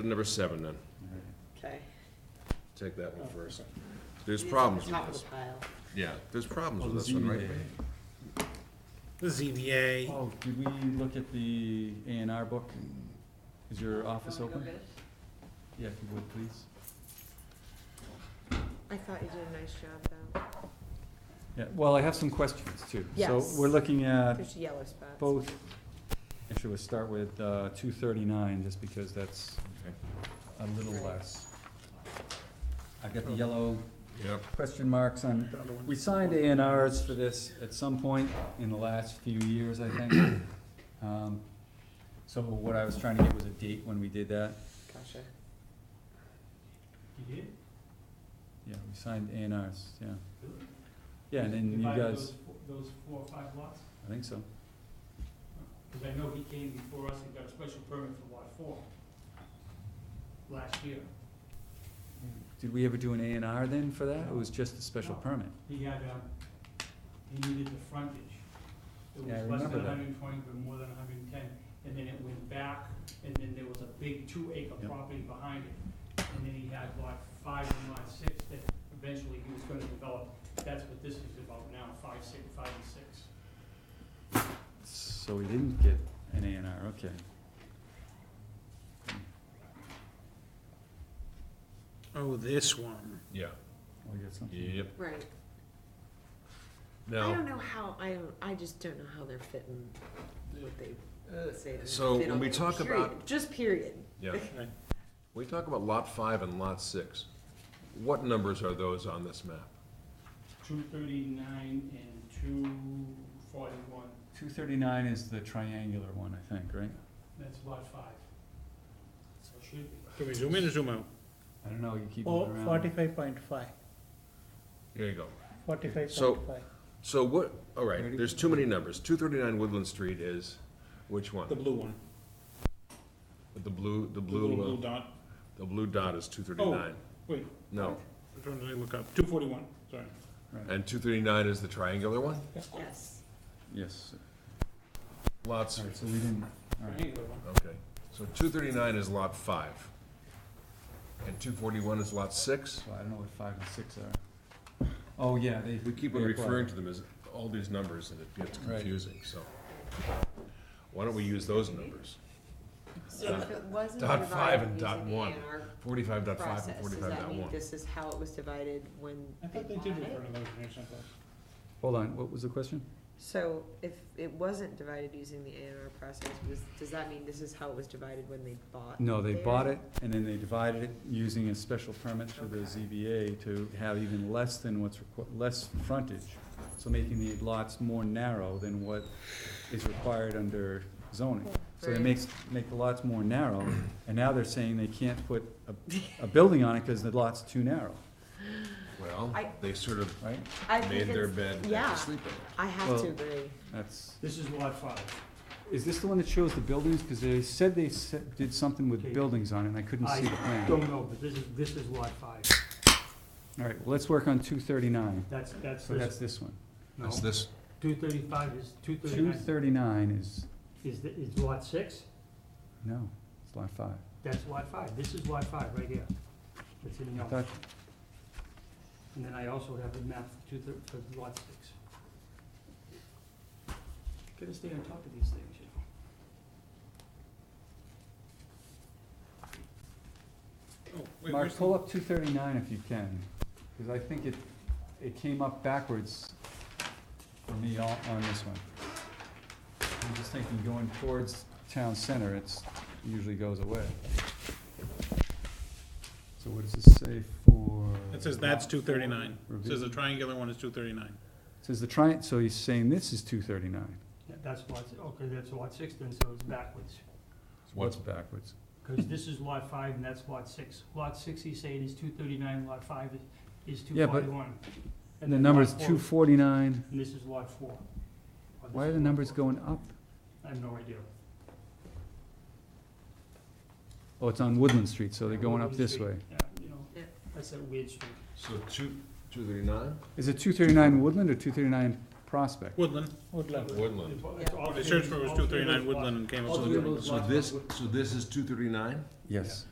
Number seven then, Okay. take that one first. There's problems Top with of this, the pile. yeah, there's problems with this one, right? Barry? The ZBA, Oh, did we look at the A and R book? Is your office open? Yeah, if you would, please. I thought you did a nice job, though. Yeah, well, I have some questions too. Yes. So we're looking at There's yellow spots. both, actually, we'll start with, uh, two thirty-nine, just because that's a little Right. less. I've got the yellow Yep, question marks on, we signed A and Rs for this at some point in the last few years, I think. Um, So what I was trying to get was a date when we did that. Gotcha. You did? Yeah, we signed A and Rs, yeah. Yeah, and then you Divided guys, those fo- Those four or five lots? I think so. Because I know he came before us and got a special permit for lot four last year. Did we ever do an A and R then for that? It was just a special No. permit? He had, um, he needed the frontage. It Yeah, I was less remember than that. hundred and twenty, but more than hundred and ten, and then it went back, and then there was a big two acre Yep. property behind it. And then he had lot five and lot six that eventually he was gonna develop, that's what this is about now, five, six, five and six. So we didn't get an A and R, okay. oh, this one. yeah, We got something. yep. Right. I Now, don't know how, I don't, I just don't know how they're fitting what they uh, say. they're so fit when on we there. talk Period. about, Just period. yeah, we talk about lot five and lot six. What numbers are those on this map? two thirty-nine and two forty-one, Two thirty-nine is the triangular one, I think, right? that's lot five. So it should be. Can we zoom in or zoom out? I don't know, you keep Oh, moving around. forty-five point five, There you go. forty-five So- point five. So what, all right, there's too many numbers. Two thirty-nine Woodland Street is, which one? The blue one. The blue, the The little blue blue, uh, dot. Oh, the blue dot is two thirty-nine. wait. No, Which one did I look up? Two forty-one, sorry. and two thirty-nine is the triangular one? Yes. Yes, Lots, alright, so we didn't, alright, Triangular one. okay. So two thirty-nine is lot five. And two forty-one is lot six? so I don't know what five and six are. Oh, yeah, they. We keep on referring to them as all these numbers, and it gets Right. confusing, so. Why don't we use those numbers? So if it wasn't Dot divided five and using dot the one. A&R Forty-five dot five and process, does forty-five that dot mean one. this is how it was divided when I they thought they bought did it? refer to those in here someplace. Hold on, what was the question? So if it wasn't divided using the A and R process, was, does that mean this is how it was divided when they bought? No, they theirs? bought it, and then they divided it using a special permit through the ZBA to have even less than what's, requ- less frontage, so making the lots more narrow than what is required under zoning. So they Right. makes, make the lots more narrow, and now they're saying they can't put a, a building on it because the lot's too narrow, Well, I- they sort of right? I made think their it's, bed, and had yeah. to sleep in it. I have Well- to agree. That's, This is lot five. is this the one that shows the buildings? Because they said they se- did something with Okay. buildings on it, and I couldn't see the I plan. don't know, but this is, this is lot five. All right, well, let's work on two thirty-nine, That's, that's, so that's this. this one. no, It's this, two thirty-five is, two Two thirty-nine thirty-nine is is, the- is lot six, No, it's lot five. that's lot five, this is lot five right here. It's in I yellow. thought, And then I also have the map for two thir- for lot six. Gotta stay on top of these things, you know. Oh, wait, Mark, where's the- pull up two thirty-nine if you can, because I think it, it came up backwards for me on, on this one. I'm just thinking going towards town center, it's, usually goes away. So what does this say for? It says that's two thirty-nine. It Review? Says the triangular one is two thirty-nine. Says the tri, so he's saying this is two thirty-nine. Yeah, That's lot, si- okay, that's lot six then, so it's backwards. What's backwards? Because this is lot five and that's lot six. Lot six, he's saying is two thirty-nine, lot five is- is two Yeah, but- forty-one. And the number's two forty-nine. And this is lot four. Or this Why are is the lot numbers four. going up? I have no idea. Oh, it's on Woodland Street, so they're going up this way. Yeah, you know, Yeah. that's that weird street. so two, two thirty-nine? Is it two thirty-nine Woodland or two thirty-nine Prospect? Woodland. Woodland, Woodland. It's all They searched three- for it was all two three of thirty-nine those lots. Woodland and came up All with three the of those So lots are this, wood- so this is two thirty-nine? Yes.